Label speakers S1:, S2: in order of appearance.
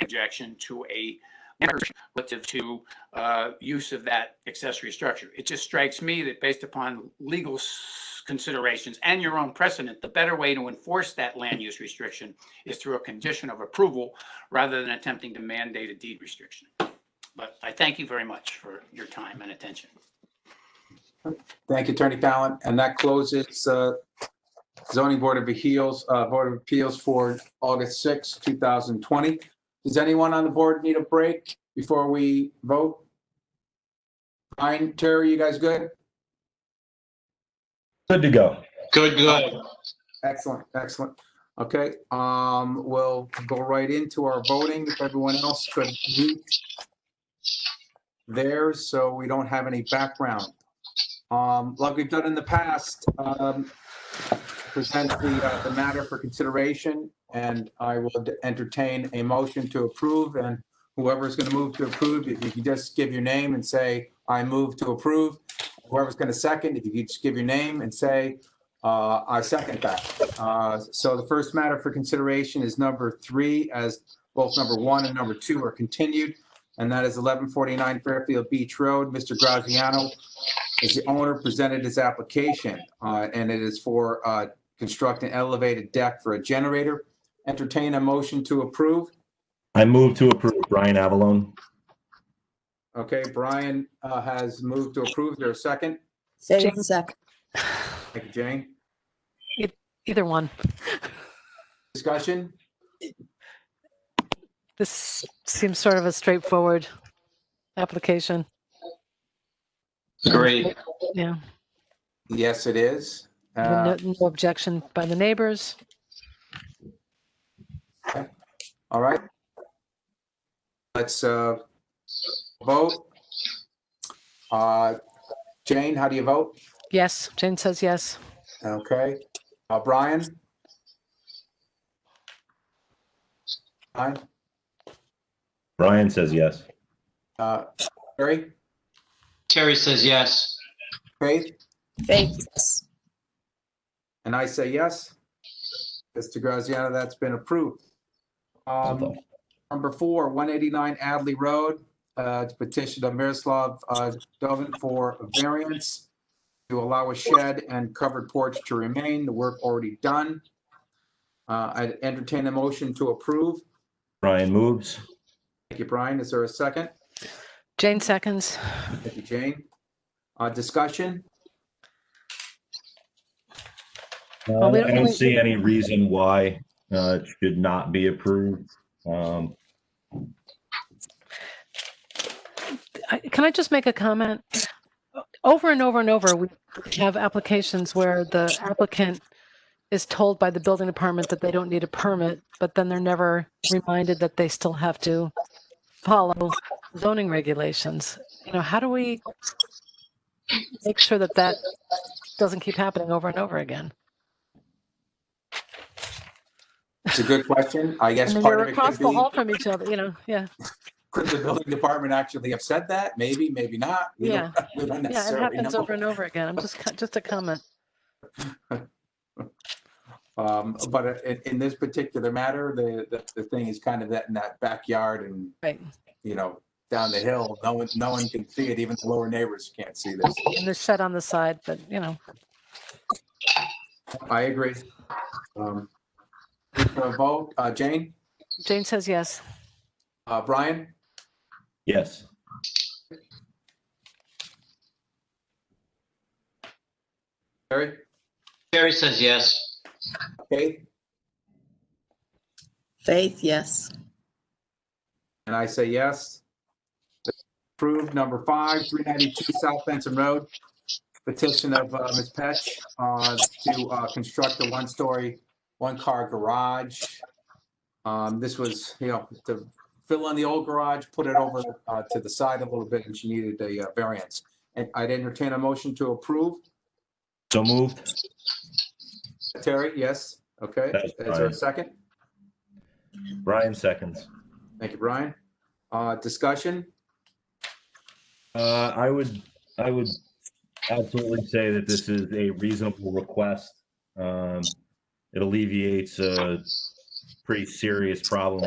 S1: objection to a relative to uh, use of that accessory structure. It just strikes me that based upon legal s- considerations and your own precedent, the better way to enforce that land use restriction is through a condition of approval rather than attempting to mandate a deed restriction. But I thank you very much for your time and attention.
S2: Thank you, Attorney Fallon. And that closes uh, zoning board of appeals, uh, board of appeals for August 6, 2020. Does anyone on the board need a break before we vote? Ryan, Terry, you guys good?
S3: Good to go.
S4: Good, good.
S2: Excellent, excellent. Okay, um, we'll go right into our voting if everyone else could mute theirs, so we don't have any background. Um, like we've done in the past, um, present the, uh, the matter for consideration and I will entertain a motion to approve and whoever's gonna move to approve, if you could just give your name and say, I move to approve. Whoever's gonna second, if you could just give your name and say, uh, I second that. Uh, So the first matter for consideration is number three, as both number one and number two are continued. And that is 1149 Fairfield Beach Road. Mr. Graziano is the owner, presented his application, uh, and it is for uh, construct an elevated deck for a generator. Entertain a motion to approve.
S3: I move to approve Brian Avalone.
S2: Okay, Brian uh, has moved to approve. Is there a second?
S5: Save the sec.
S2: Thank you, Jane.
S6: Either one.
S2: Discussion?
S6: This seems sort of a straightforward application.
S4: Great.
S6: Yeah.
S2: Yes, it is. Uh,
S6: No no objection by the neighbors.
S2: All right. Let's uh, vote. Uh, Jane, how do you vote?
S6: Yes. Jane says yes.
S2: Okay. Uh, Brian? Brian?
S3: Brian says yes.
S2: Uh, Terry?
S4: Terry says yes.
S2: Faith?
S5: Faith, yes.
S2: And I say yes. Mr. Graziano, that's been approved. Um, Number four, 189 Adley Road, uh, to petition of Miroslav uh, Dovin for a variance to allow a shed and covered porch to remain, the work already done. Uh, I entertain a motion to approve.
S3: Brian moves.
S2: Thank you, Brian. Is there a second?
S6: Jane seconds.
S2: Thank you, Jane. Uh, Discussion?
S3: Uh,
S6: we
S3: I
S6: don't
S3: don't
S6: really-
S3: see any reason why uh, it should not be approved. Um,
S6: I- Can I just make a comment? Over and over and over, we have applications where the applicant is told by the building department that they don't need a permit, but then they're never reminded that they still have to follow zoning regulations. You know, how do we make sure that that doesn't keep happening over and over again?
S2: It's a good question. I
S6: I
S2: guess
S6: mean,
S2: part
S6: you're
S2: of it could
S6: across the
S2: be,
S6: hall from each other, you know, yeah,
S2: could the building department actually have said that? Maybe, maybe not. We don't- We don't
S6: yeah, it
S2: necessarily
S6: happens
S2: know.
S6: over and over again. I'm just, just a comment.
S2: Um, but in, in this particular matter, the, the, the thing is kind of that in that backyard and,
S6: Right.
S2: you know, down the hill, no one, no one can see it, even the lower neighbors can't see this.
S6: And the shed on the side, but you know,
S2: I agree. Um, we can vote, uh, Jane,
S6: Jane says yes.
S2: uh, Brian,
S3: yes.
S2: Terry,
S4: Terry says yes.
S2: Kate,
S5: Faith, yes.
S2: and I say yes. Approved number five, three ninety-two South Benson Road. Petition of, uh, Ms. Petch, uh, to, uh, construct a one-story, one-car garage. Um, this was, you know, to fill in the old garage, put it over, uh, to the side a little bit, and she needed a uh, variance. And I'd entertain a motion to approve.
S3: So moved.
S2: Terry, yes, okay.
S3: That's
S2: Is there a
S3: Brian.
S2: second?
S3: Brian seconds.
S2: Thank you, Brian. Uh, discussion?
S3: Uh, I would, I would absolutely say that this is a reasonable request. Um, it alleviates a pretty serious problem